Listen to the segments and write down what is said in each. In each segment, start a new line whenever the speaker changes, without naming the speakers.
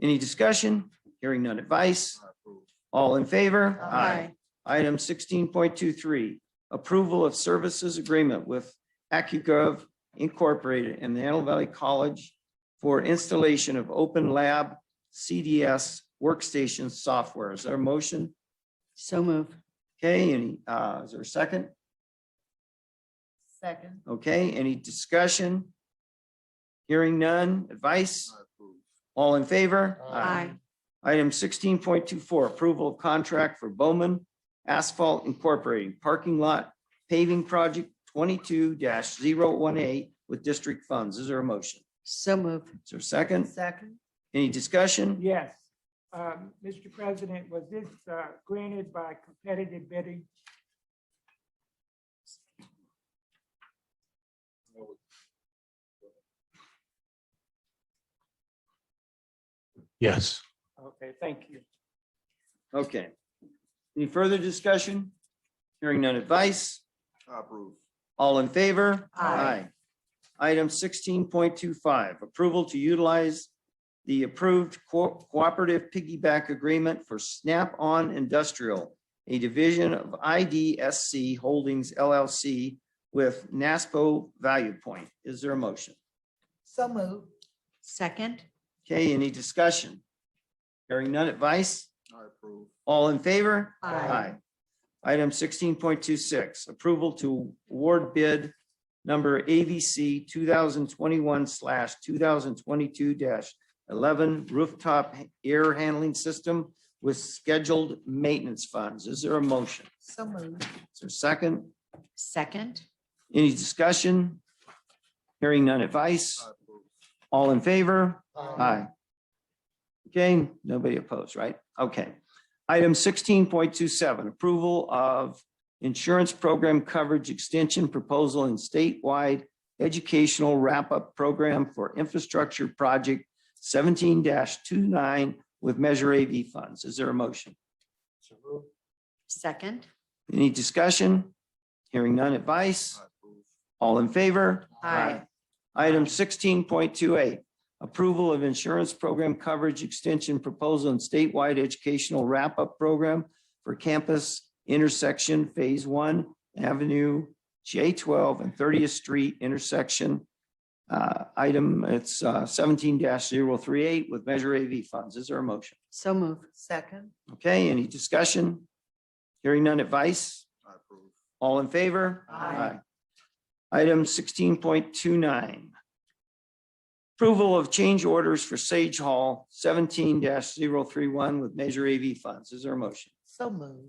Any discussion? Hearing none advice? All in favor? Item sixteen point two three, approval of services agreement with AccuGov Incorporated and the Antelope Valley College for installation of Open Lab CDS workstation software. Is there a motion?
So move.
Okay, any, uh, is there a second?
Second.
Okay, any discussion? Hearing none, advice? All in favor?
Aye.
Item sixteen point two four, approval of contract for Bowman Asphalt Incorporated Parking Lot Paving Project twenty-two 18 with district funds. Is there a motion?
So move.
Is there a second?
Second.
Any discussion?
Yes. Um, Mr. President, was this uh, granted by competitive bidding?
Yes.
Okay, thank you.
Okay. Any further discussion? Hearing none advice?
Approve.
All in favor?
Aye.
Item sixteen point two five, approval to utilize the approved co- cooperative piggyback agreement for Snap-on Industrial, a division of IDSC Holdings LLC with NASPO Value Point. Is there a motion?
So move. Second.
Okay, any discussion? Hearing none advice?
I approve.
All in favor?
Aye.
Item sixteen point two six, approval to award bid number AVC two thousand twenty-one slash two thousand twenty-two eleven rooftop air handling system with scheduled maintenance funds. Is there a motion?
So move.
Is there a second?
Second.
Any discussion? Hearing none advice?
I approve.
All in favor? Aye. Okay, nobody opposed, right? Okay. Item sixteen point two seven, approval of insurance program coverage extension proposal and statewide educational wrap-up program for infrastructure project seventeen 29 with Measure AV funds. Is there a motion?
Second.
Any discussion? Hearing none advice?
I approve.
All in favor?
Aye.
Item sixteen point two eight, approval of insurance program coverage extension proposal and statewide educational wrap-up program for campus intersection Phase One Avenue J twelve and thirtieth Street intersection. Uh, item, it's uh, seventeen 38 with Measure AV funds. Is there a motion?
So move. Second.
Okay, any discussion? Hearing none advice?
I approve.
All in favor?
Aye.
Item sixteen point two nine. Approval of change orders for Sage Hall seventeen 31 with Measure AV funds. Is there a motion?
So move.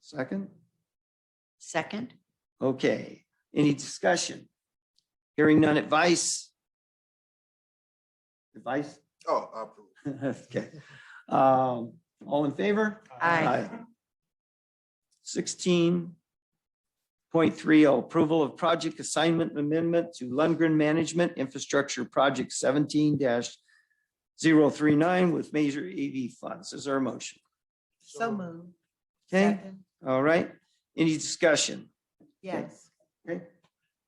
Second?
Second.
Okay, any discussion? Hearing none advice? Advice?
Oh, I approve.
Okay. Um, all in favor?
Aye.
Sixteen point three oh, approval of project assignment amendment to Lundgren Management Infrastructure Project seventeen 39 with major AV funds. Is there a motion?
So move.
Okay, all right. Any discussion?
Yes.
Okay.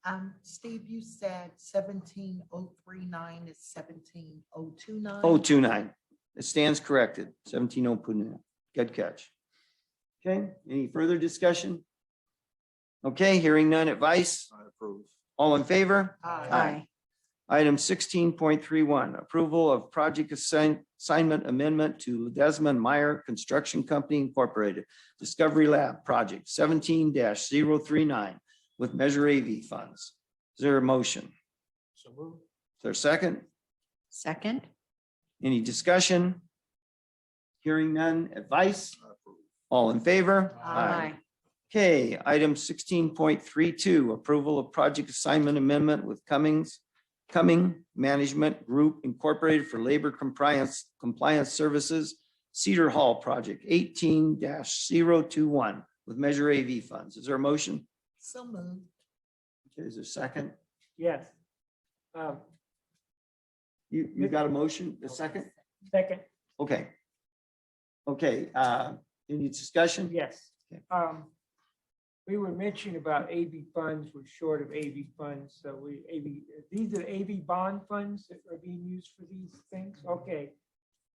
Um, Steve, you said seventeen oh three nine is seventeen oh two nine.
Oh, two nine. It stands corrected, seventeen oh two nine. Good catch. Okay, any further discussion? Okay, hearing none advice.
I approve.
All in favor?
Aye.
Item sixteen point three one, approval of project assign- assignment amendment to Desmond Meyer Construction Company Incorporated Discovery Lab Project seventeen 39 with Measure AV funds. Is there a motion?
So move.
Is there a second?
Second.
Any discussion? Hearing none, advice?
I approve.
All in favor?
Aye.
Okay, item sixteen point three two, approval of project assignment amendment with Cummings, Cumming Management Group Incorporated for Labor Compliance, Compliance Services, Cedar Hall Project eighteen 21 with Measure AV funds. Is there a motion?
So moved.
Okay, Is there a second?
Yes. Um,
You, you got a motion, a second?
Second,
Okay. Okay, uh, any discussion?
yes.
Okay.
Um, We were mentioning about AV funds, we're short of AV
Mm-hmm.
funds, so we, AV, these are AV bond funds that are being used for these things? Okay,